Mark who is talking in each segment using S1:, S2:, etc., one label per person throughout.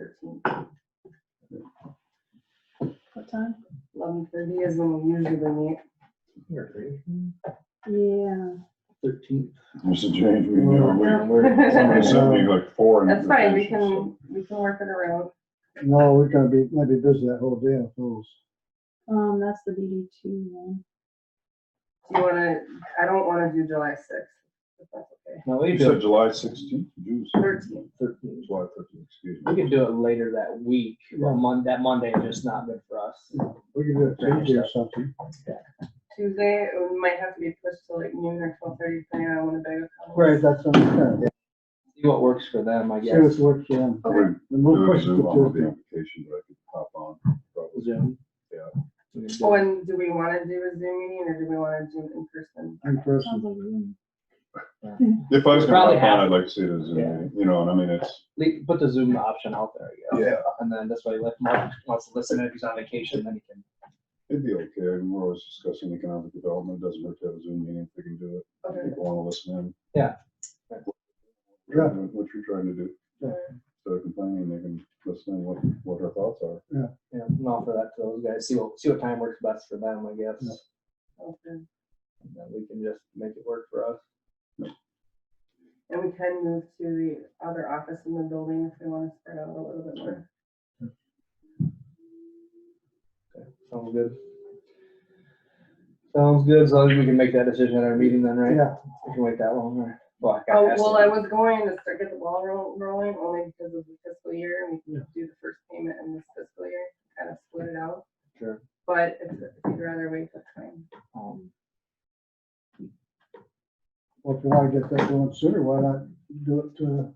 S1: thirteen.
S2: What time?
S1: Eleven thirty is when we usually meet.
S2: Yeah.
S3: Thirteenth.
S4: It's a change we do.
S1: No.
S4: We- Somebody sent me like four.
S1: That's fine, we
S4: invitations, so-
S1: can, we can work it around.
S3: No, we're gonna be, might be busy that whole day, I suppose.
S2: Um, that's the DD two one.
S1: Do you wanna, I don't wanna do July sixth, if that's okay.
S5: No, we
S4: You
S5: can do
S4: said
S5: it,
S4: July sixteenth, June
S1: Thirteenth.
S3: Thirteenth.
S4: July thirteenth, excuse
S5: we
S4: me.
S5: can do it later that week, or Mon, that Monday, just not good for us.
S3: We can do it Tuesday or something.
S1: Tuesday, it might have to be pushed to like noon or twelve thirty, depending on when the bag of
S3: Right, that's what I'm saying.
S5: See what works for them, I
S3: See
S5: guess.
S3: what's worked for them.
S1: Okay.
S4: We'd
S3: And we'll
S4: do a
S3: push it
S4: Zoom on
S3: to
S4: the
S3: Tuesday.
S4: application, but I could hop on probably.
S5: Zoom.
S4: Yeah.
S5: We can do
S1: Oh,
S5: it.
S1: and do we wanna do a Zoom meeting or do we wanna do it in person?
S3: In
S2: Sounds
S3: person.
S2: like you.
S4: If I was gonna
S5: Probably
S4: hop on,
S5: half.
S4: I'd like to see it as, a
S5: Yeah.
S4: meeting, you know, and I mean, it's,
S5: Le- Put the Zoom option out there, I guess.
S4: Yeah.
S5: And then this way, if Mark wants to listen, if he's on vacation, then he can.
S4: it'd be okay. I mean, We're always discussing economic development. It Doesn't hurt to have a Zoom meeting if we can do it.
S1: Okay.
S4: People wanna listen in.
S5: Yeah.
S4: Yeah, what you're trying to do.
S3: Yeah.
S4: So they're complaining, they can listen in what, what our thoughts are.
S5: Yeah, and offer that to those guys, see what, see what time works best for them, I guess.
S3: Yeah.
S1: Okay.
S5: And then we can just make it work for us.
S1: And we can move to the other office in the building if we wanna spread out a little bit more.
S5: Sounds good. Sounds good, so we can make that decision at our meeting then, right?
S3: Yeah,
S5: We can wait that long, or? Well, I got
S1: Oh,
S5: asked
S1: well,
S5: to-
S1: I was going to start get the ball ro- rolling only because of the fiscal year and we can do the first payment in this fiscal year, kind of split it out.
S5: Sure.
S1: But if if you'd rather wait, that's fine.
S5: Um,
S3: well, if you wanna get that going sooner, why not do it to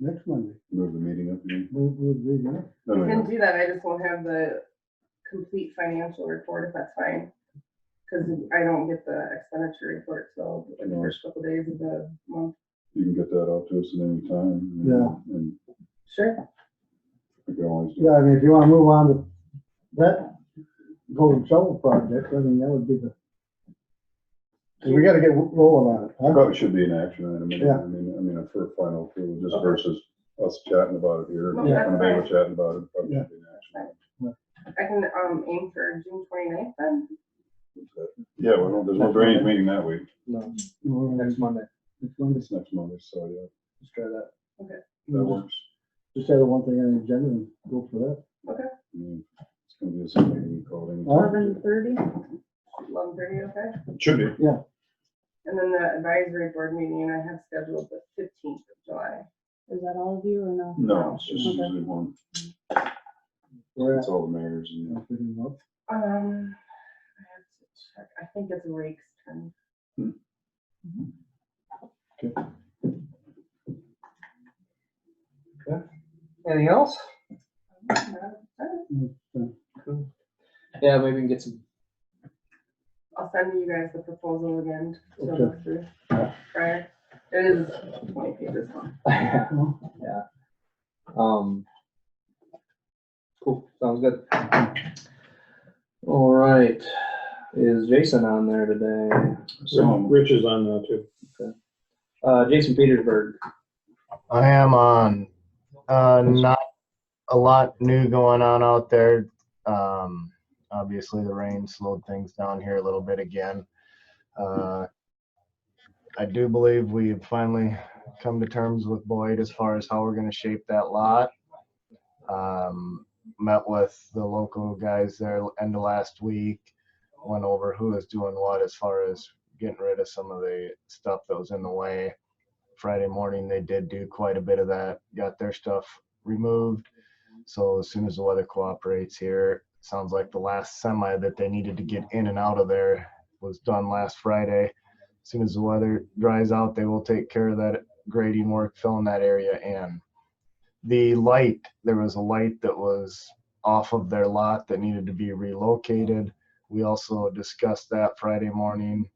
S3: next Monday?
S4: Move the meeting up. you mean?
S3: We'll, we'll be there.
S4: No,
S1: We
S4: no, no.
S1: can do that, I just won't have the complete financial report if that's fine. Cause I don't get the expenditure report till like, the first couple days of the month.
S4: You can get that out to us at any time. and-
S3: Yeah.
S4: And
S1: Sure.
S4: we can always do
S3: Yeah, I mean, if you wanna move on to that golden shovel project, I mean, that would be the. 'cause we gotta get rolling on it,
S4: I
S3: huh?
S4: Probably should be an action item, I mean,
S3: Yeah.
S4: I mean, I mean, for a final approval, just
S5: Okay.
S4: versus us chatting about it here.
S1: No,
S4: and
S3: that's
S4: kind of people
S1: fine.
S4: Chatting about it, probably
S3: Yeah.
S4: should be an action.
S1: I can, um, aim for June 29th then.
S4: item. But, Yeah, well, there's no drainage meeting that week,
S5: No,
S3: Well,
S5: next Monday,
S3: it's one of
S4: it's next Monday, so yeah,
S5: let's try that.
S4: that
S3: the-
S4: works.
S3: Just have the one thing on the agenda and go for that.
S4: I mean, It's gonna be the same meeting calling.
S2: Eleven thirty.
S1: Eleven thirty, okay?
S4: Should be.
S1: And then the advisory board meeting I have scheduled the fifteenth of July.
S2: Is that all of you or no?
S4: No, it's just
S2: Okay.
S4: usually one,
S3: We're at,
S4: it's all the mayors and.
S3: I'm figuring out.
S1: Um, I have to check, I think it's Rake's turn.
S4: Hmm.
S3: Okay.
S5: Anything else? Yeah, maybe we can get some,
S1: I'll send you guys the proposal again to
S3: Okay.
S1: look through. Prior, it is twenty pages long.
S5: yeah,
S3: Well,
S5: um. Cool, sounds good. All right, is Jason on there today?
S4: So,
S6: Rich is on now too.
S5: Uh, Jason Petersburg,
S7: I am on. Uh, not a lot new going on out there. Um, obviously, the rain slowed things down here a little bit again. Uh, I do believe we've finally come to terms with Boyd as far as how we're going to shape that lot. Um, met with the local guys there end of last week, went over who is doing what as far as getting rid of some of the stuff that was in the way. Friday morning, they did do quite a bit of that, got their stuff removed. So as soon as the weather cooperates here, sounds like the last semi that they needed to get in and out of there was done last Friday. As Soon as the weather dries out, they will take care of that grading work, filling that area in. The light, there was a light that was off of their lot that needed to be relocated. We also discussed that Friday morning.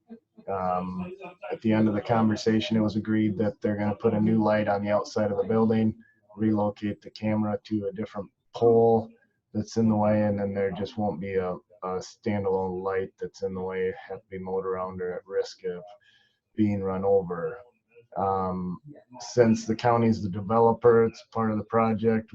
S7: Um, at the end of the conversation, it was agreed that they're gonna put a new light on the outside of the building, relocate the camera to a different pole that's in the way, and then there just won't be a, a standalone light that's in the way, have to be mowed around or at risk of being run over. Um, since the county's the developer, it's part of the project,